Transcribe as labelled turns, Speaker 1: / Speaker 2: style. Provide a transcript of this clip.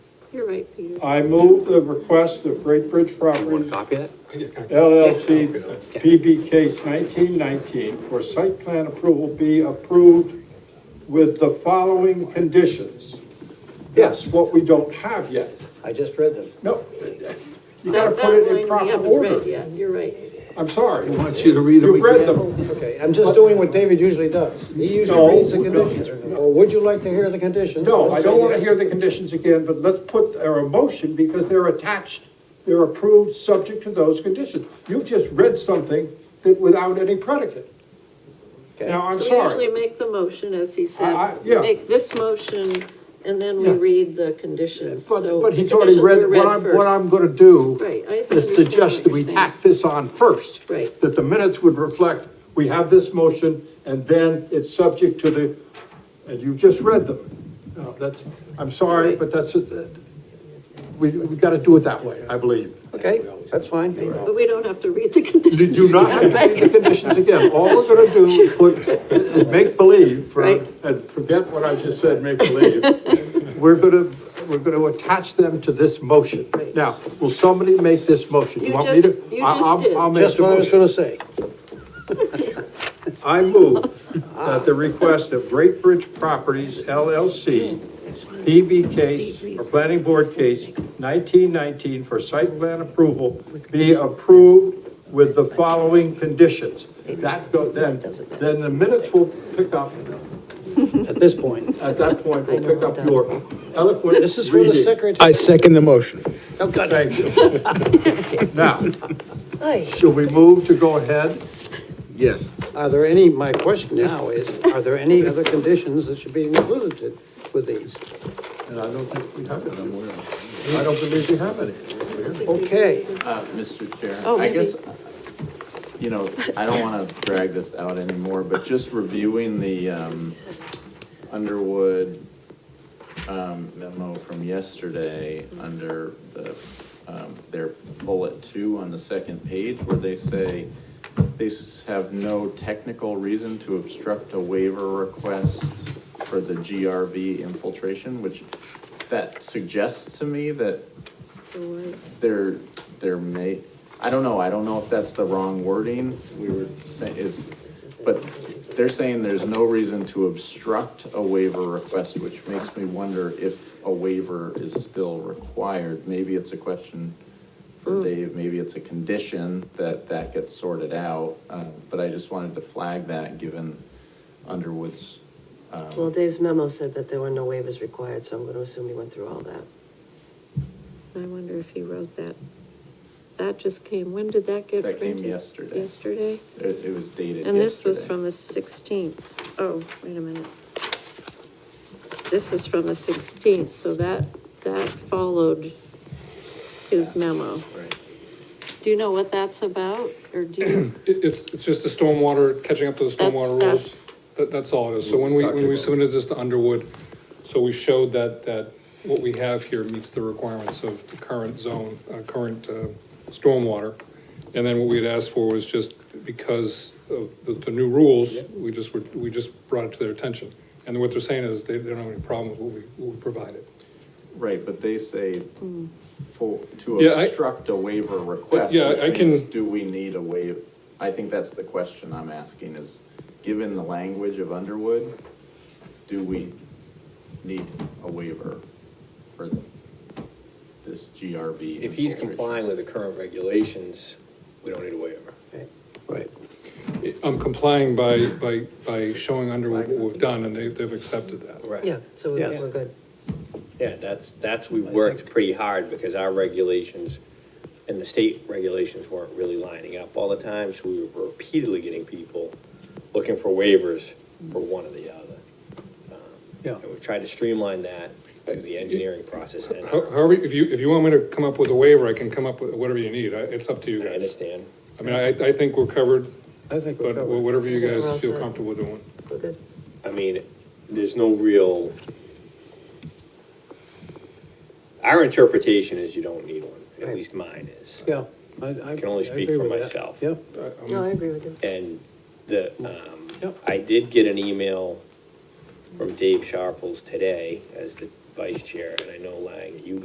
Speaker 1: You're right, Peter.
Speaker 2: I move the request of Great Bridge
Speaker 3: Want to
Speaker 2: Properties
Speaker 3: copy that?
Speaker 2: LLC PB case nineteen nineteen for site plan approval be approved with the following conditions. Yes, what we don't have yet.
Speaker 4: I just read them.
Speaker 2: No, you gotta
Speaker 1: That, that
Speaker 2: put it in
Speaker 1: line we
Speaker 2: proper
Speaker 1: haven't read
Speaker 2: order.
Speaker 1: yet, you're right.
Speaker 2: I'm sorry. I
Speaker 3: want you to read them
Speaker 2: You've read them.
Speaker 4: Okay, I'm just doing what David usually does. He
Speaker 2: No,
Speaker 4: usually reads the
Speaker 2: no,
Speaker 4: conditions. Or would you like to hear the conditions?
Speaker 2: No, I don't want to hear the conditions again, but let's put our motion, because they're attached, they're approved, subject to those conditions. You've just read something that without any predicate.
Speaker 4: Okay.
Speaker 2: Now, I'm
Speaker 1: So we usually
Speaker 2: sorry,
Speaker 1: make the motion, as he
Speaker 2: I-
Speaker 1: said,
Speaker 2: yeah.
Speaker 1: make this motion, and then we
Speaker 2: Yeah.
Speaker 1: read the conditions,
Speaker 2: but,
Speaker 1: so.
Speaker 2: but he's
Speaker 1: the
Speaker 2: already
Speaker 1: conditions
Speaker 2: read,
Speaker 1: were
Speaker 2: what I'm, what
Speaker 1: first.
Speaker 2: I'm going to do
Speaker 1: Right, I just
Speaker 2: is
Speaker 1: understand
Speaker 2: suggest
Speaker 1: what
Speaker 2: that
Speaker 1: you're
Speaker 2: we
Speaker 1: saying.
Speaker 2: tack this on first.
Speaker 1: Right.
Speaker 2: That the minutes would reflect, we have this motion, and then it's subject to the, and you've just read them. No, that's, I'm sorry,
Speaker 1: Right.
Speaker 2: but that's, uh, we, we got to do it that way, I believe.
Speaker 4: Okay, that's fine.
Speaker 1: But we don't have to read the conditions.
Speaker 2: You do not have to
Speaker 1: Right.
Speaker 2: read the conditions again. All we're gonna do is put, is make believe for,
Speaker 1: Right.
Speaker 2: and forget what I just said, make believe. We're gonna, we're gonna attach them to this motion.
Speaker 1: Right.
Speaker 2: Now, will somebody make this motion?
Speaker 1: You
Speaker 2: want me
Speaker 1: just-
Speaker 2: to?
Speaker 1: you
Speaker 2: I-
Speaker 1: just
Speaker 2: I'll-
Speaker 1: did.
Speaker 2: I'll make
Speaker 4: Just
Speaker 2: the
Speaker 4: what I was
Speaker 2: motion.
Speaker 4: gonna say.
Speaker 2: I move at the request of Great Bridge Properties LLC, PB case, or planning board case nineteen nineteen for site plan approval be approved with the following conditions. That go, then, then the minutes will pick up,
Speaker 4: At this point,
Speaker 2: at that point, will pick up your eloquent
Speaker 4: this is for the
Speaker 2: reading.
Speaker 4: secretary.
Speaker 5: I second the motion.
Speaker 4: Oh, God.
Speaker 2: Thank you. Now, shall we move to go ahead?
Speaker 3: Yes.
Speaker 4: Are there any, my question now is, are there any other conditions that should be included with these?
Speaker 2: And I don't think we have any. I don't believe we have any.
Speaker 4: Okay,
Speaker 6: Uh, Mr.
Speaker 1: Oh,
Speaker 6: Chair, I
Speaker 1: maybe.
Speaker 6: guess, you know, I don't want to drag this out anymore, but just reviewing the um, Underwood um, memo from yesterday under the, um, their bullet two on the second page where they say they s- have no technical reason to obstruct a waiver request for the GRV infiltration, which that suggests to me that there, there may, I don't know, I don't know if that's the wrong wording, we were saying, is, but they're saying there's no reason to obstruct a waiver request, which makes me wonder if a waiver is still required. Maybe it's a question
Speaker 1: Hmm.
Speaker 6: for Dave, maybe it's a condition that that gets sorted out, uh, but I just wanted to flag that, given Underwood's,
Speaker 7: Well, Dave's memo said that there were no waivers required, so I'm going to assume he went through all that.
Speaker 1: I wonder if he wrote that. That just came, when did that get
Speaker 6: That
Speaker 1: printed?
Speaker 6: came yesterday.
Speaker 1: Yesterday?
Speaker 6: it it was dated
Speaker 1: And this was
Speaker 6: yesterday.
Speaker 1: from the sixteenth. Oh, wait a minute. This is from the sixteenth, so that, that followed his memo.
Speaker 6: Right.
Speaker 1: Do you know what that's about, or do you?
Speaker 8: It, it's, it's just the stormwater, catching up to the
Speaker 1: That's-
Speaker 8: stormwater
Speaker 1: that's-
Speaker 8: rules. That, that's all it is. So when we, when we submitted this to Underwood, so we showed that, that what we have here meets the requirements of the current zone, uh, current, uh, stormwater. And then what we had asked for was just because of the, the new rules, we just, were- we just brought it to their attention. And what they're saying is they, they don't have any problem with what we, what we provided.
Speaker 6: Right, but they say for, to
Speaker 8: Yeah, I-
Speaker 6: obstruct a waiver request.
Speaker 8: Yeah, I
Speaker 6: which means
Speaker 8: can-
Speaker 6: Do we need a waiver? I think that's the question I'm asking is, given the language of Underwood, do we need a waiver for this GRB?
Speaker 9: If he's
Speaker 6: infiltration?
Speaker 9: complying with the current regulations, we don't need a waiver.
Speaker 4: right.
Speaker 8: I'm complying by, by, by showing Underwood what we've done and they, they've accepted that.
Speaker 7: Yeah, so we-
Speaker 4: Yeah.
Speaker 7: we're good.
Speaker 9: Yeah, that's, that's, we worked pretty hard because our regulations and the state regulations weren't really lining up all the time, so we were repeatedly getting people looking for waivers for one or the other. Um,
Speaker 4: Yeah.
Speaker 9: And we've tried to streamline that through the engineering process and
Speaker 8: How- However, if you, if you want me to come up with a waiver, I can come up with whatever you need. I- It's up to
Speaker 9: I
Speaker 8: you guys.
Speaker 9: understand.
Speaker 8: I mean, I, I think we're covered,
Speaker 4: I think we're
Speaker 8: but
Speaker 4: covered.
Speaker 8: whatever you
Speaker 7: We're all
Speaker 8: guys feel
Speaker 7: set.
Speaker 8: comfortable doing.
Speaker 7: We're good.
Speaker 9: I mean, there's no real. Our interpretation is you don't need one, at
Speaker 4: Right.
Speaker 9: least mine is.
Speaker 4: Yeah. I- I
Speaker 9: can only
Speaker 4: I
Speaker 9: speak
Speaker 4: agree
Speaker 9: for
Speaker 4: with that.
Speaker 9: myself.
Speaker 4: Yep,
Speaker 7: No, I agree with you.
Speaker 9: And the, um,
Speaker 4: Yep.
Speaker 9: I did get an email from Dave Sharples today as the vice chair, and I know Lang, you